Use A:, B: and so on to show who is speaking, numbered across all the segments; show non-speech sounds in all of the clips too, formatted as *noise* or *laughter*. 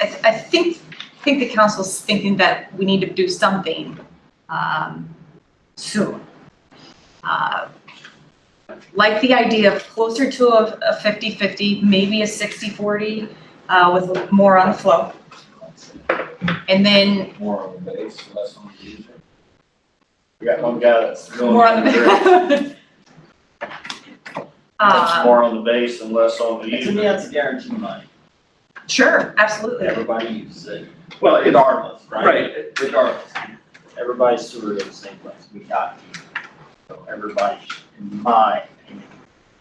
A: I think, I think the council's thinking that we need to do something um, soon. Uh, Like the idea of closer to a a 50-50, maybe a 60-40 uh, with more on the flow. And then
B: More on the base, less on the user.
C: We got one guy that's going.
A: more on *laughs* the.
C: That's
A: Uh,
C: more on the base and less on the
D: To me,
C: user.
D: that's a guarantee money.
A: Sure, absolutely.
D: Everybody uses it.
C: Well, it-
D: Regardless, right?
C: Right,
D: Regardless. Everybody's sewer is the same place. We got to. So everybody, in my opinion,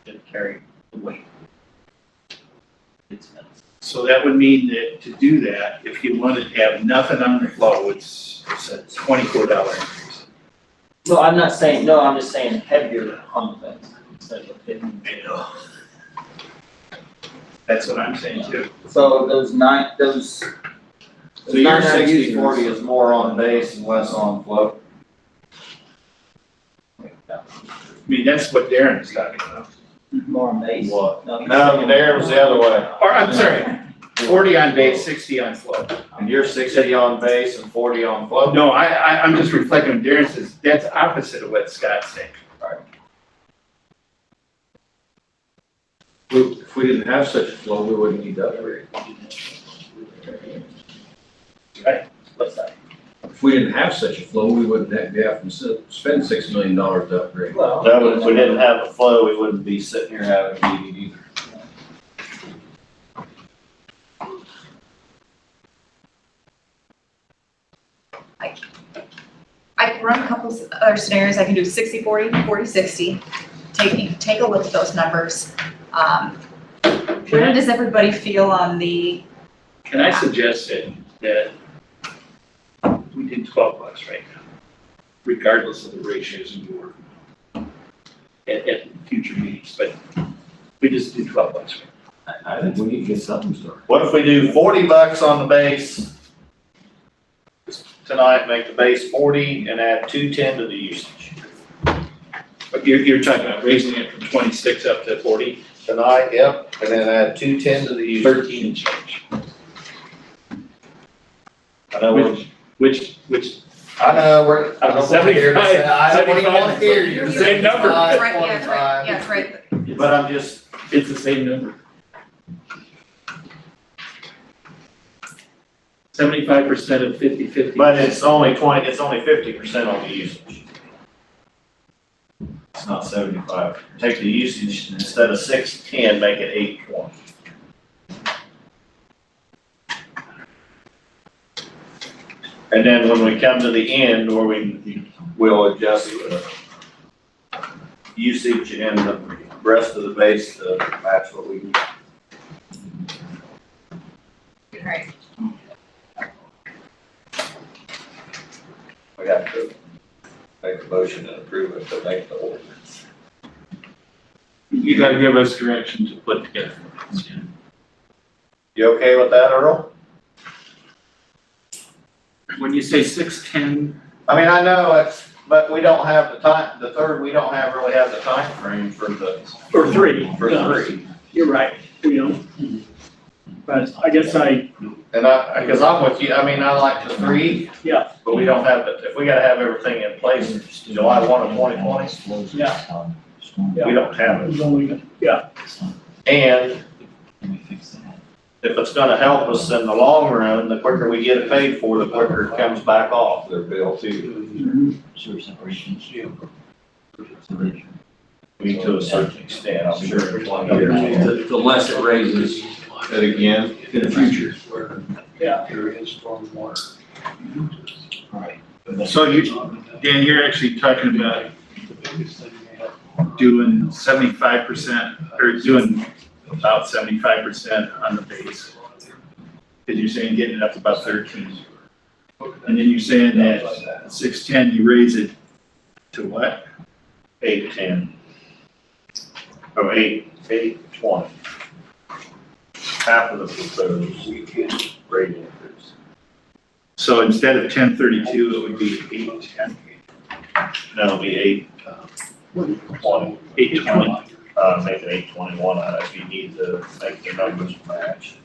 D: should carry the weight. It's,
E: So that would mean that to do that, if you wanted to have nothing on the flow, it's, it's a twenty-four dollar increase.
D: no, I'm not saying, no, I'm just saying heavier on the fence instead of a fifteen.
E: That's what I'm saying too.
F: So those nine, those.
C: So your sixty forty is more on base and less on flow.
E: I mean, that's what Darren's talking about.
D: More base.
C: What?
D: No, he's
C: No,
D: saying-
C: there was the other way.
E: Or, I'm sorry, forty on base, sixty on flow.
C: And you're sixty on base and forty on flow.
E: No, I, I, I'm just reflecting on Darren says, that's opposite of what Scott's saying.
B: We- If we didn't have such a flow, we wouldn't need to upgrade.
D: What's that?
B: If we didn't have such a flow, we wouldn't have, have to s- spend six million dollars to upgrade.
D: Well,
C: That would, if we didn't have the flow, we wouldn't be sitting here having a meeting either.
A: I can run a couple of other scenarios, I can do 60, 40, 40, 60. Take, you can take a look at those numbers. Um, Where does everybody feel on the,
E: Can I suggest that, that we did twelve bucks right now, regardless of the ratios and your, at, at future meetings, but we just do twelve bucks. right
B: I think we need to get something started.
C: What if we do forty bucks on the base? Tonight, make the base forty and add two ten to the usage.
E: now. But you're, you're talking about raising it from twenty-six up to forty?
C: Tonight, yep, and then add two ten to the usage.
E: Thirteen and change.
C: I know, we're-
E: Which, which,
C: I know, we're, I don't want to hear this. I don't even want to hear you. Uh,
E: same number.
C: Five,
A: Right, yeah, right,
C: twenty-five.
A: yeah, right,
C: But I'm just,
E: it's the same number. Seventy-five percent of fifty-fifty.
C: but it's only twenty, it's only fifty percent on the usage. It's not seventy-five. Take the usage, instead of six ten, make it eight twenty. And then when we come to the end, where we, we'll adjust the usage and the rest of the base to match what we need.
A: right.
B: We have to make a motion and approve it, but make the ordinance.
E: You gotta give us direction to put together.
C: You okay with that, Earl?
E: When you say six-ten,
C: I mean, I know it's, but we don't have the time, the third, we don't have, really have the time frame for the,
G: Or three.
C: for
G: No,
C: three.
G: You're right, you know. But I guess I,
C: And I, because I'm with you, I mean, I like the three.
G: Yeah.
C: But we don't have, the if we gotta have everything in place, July one of twenty twenty,
G: Yeah.
C: we don't have it.
G: was only, yeah,
C: And if it's gonna help us in the long run, the quicker we get it paid for, the quicker it comes back off.
B: Their bill too.
F: Sewer separation.
C: We to a certain extent, I'm sure in twenty years.
B: The less it raises it again in the future.
G: yeah.
E: so you, Dan, you're actually talking about doing seventy-five percent, or doing about seventy-five percent on the base. Cause you're saying getting it up to about thirteen, and then you're saying that six-ten, you raise it to what?
C: Eight, ten. Or eight, eight, twenty. Half of the proposed rate increase.
E: So instead of ten thirty-two, it would be eight-ten,
C: That'll be eight, twenty,
E: eight-twenty.
C: uh, make it eight twenty-one, uh, if you need to make the numbers match.